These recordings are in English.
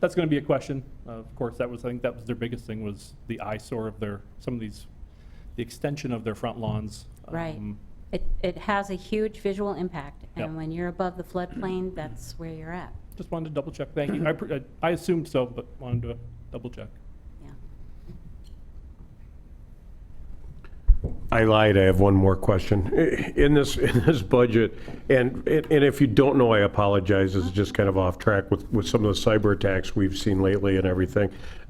that's going to be a question. Uh, Of course, that was, I think that was their biggest thing was the eyesore of their, some of these, the extension of their front lawns. Right. Um, It, it has a huge visual impact, Yep. and when you're above the floodplain, that's where you're at, Just wanted to double check. Thank you. I pre- I, I assumed so, but wanted to double check. yeah. I lied, I have one more question. I- In this, in this budget, and, and if you don't know, I apologize, this is just kind of off track with, with some of the cyber attacks we've seen lately and everything.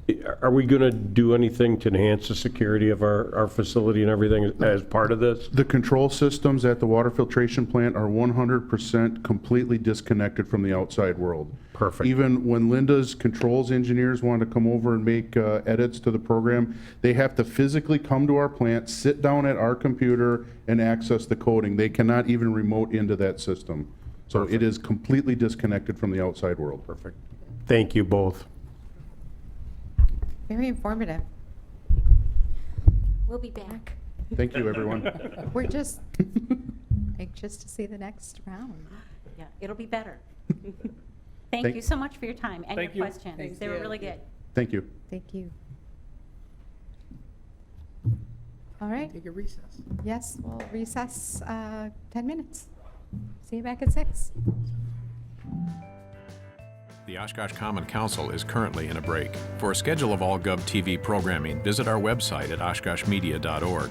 I- Are we going to do anything to enhance the security of our, our facility and everything as part of this? The control systems at the water filtration plant are 100% completely disconnected from the outside world. Perfect. Even when Linda's controls engineers want to come over and make uh, edits to the program, they have to physically come to our plant, sit down at our computer, and access the coding. They cannot even remote into that system. So it is completely disconnected from the outside world. Perfect. Thank you both. Very informative. We'll be back. Thank you, everyone. We're just anxious to see the next round. Yeah, it'll be better. Thank- Thank you so much for your time and your Thank you. questions. They were really good. Thank you. Thank you. All right, Take a recess. yes, we'll recess uh, 10 minutes. See you back at 6. The Oshkosh Common Council is currently in a break. For a schedule of all Gov TV programming, visit our website at oshkoshmedia.org.